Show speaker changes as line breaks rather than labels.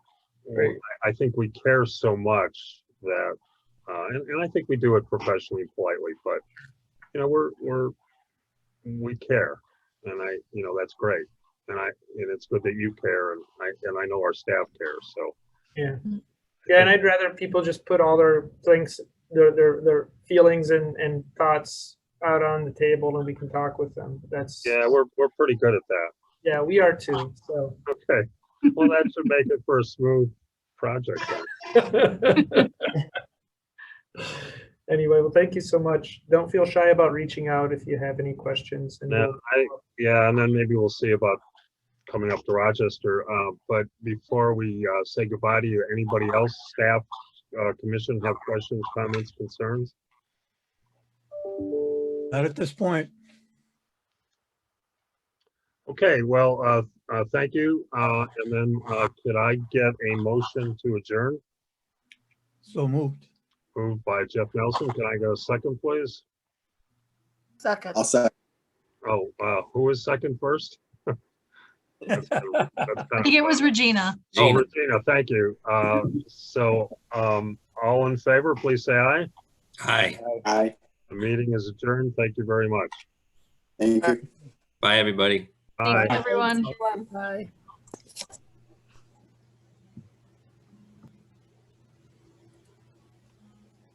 Right.
I, I think we care so much that, uh, and, and I think we do it professionally and politely, but, you know, we're, we're, we care. And I, you know, that's great. And I, and it's good that you care and I, and I know our staff cares, so.
Yeah.
Mm.
Yeah, and I'd rather people just put all their things, their their their feelings and and thoughts out on the table, and we can talk with them. That's
Yeah, we're, we're pretty good at that.
yeah, we are too. So
Okay. Well, that should make it for a smooth project. then.
anyway, well, thank you so much. Don't feel shy about reaching out if you have any questions. And
Now,
we'll-
I, yeah, and then maybe we'll see about coming up to Rochester. Uh, but before we, uh, say goodbye to you, anybody else, staff, uh, commission have questions, comments, concerns?
Not at this point.
Okay, well, uh, uh, thank you. Uh, and then, uh, could I get a motion to adjourn?
So moved.
Moved by Jeff Nelson. Can I go second, please?
Second.
I'll second.
Oh, uh, who was second first? That's kinda- that's
I
kinda
think it
funny.
was Regina.
Oh, Regina, thank you. Uh, So, um, all in favor, please say aye.
Hi.
Aye.
The meeting is adjourned. Thank you very much.
Thank you.
Bye, everybody.
Aye.
Thanks, everyone.
Bye.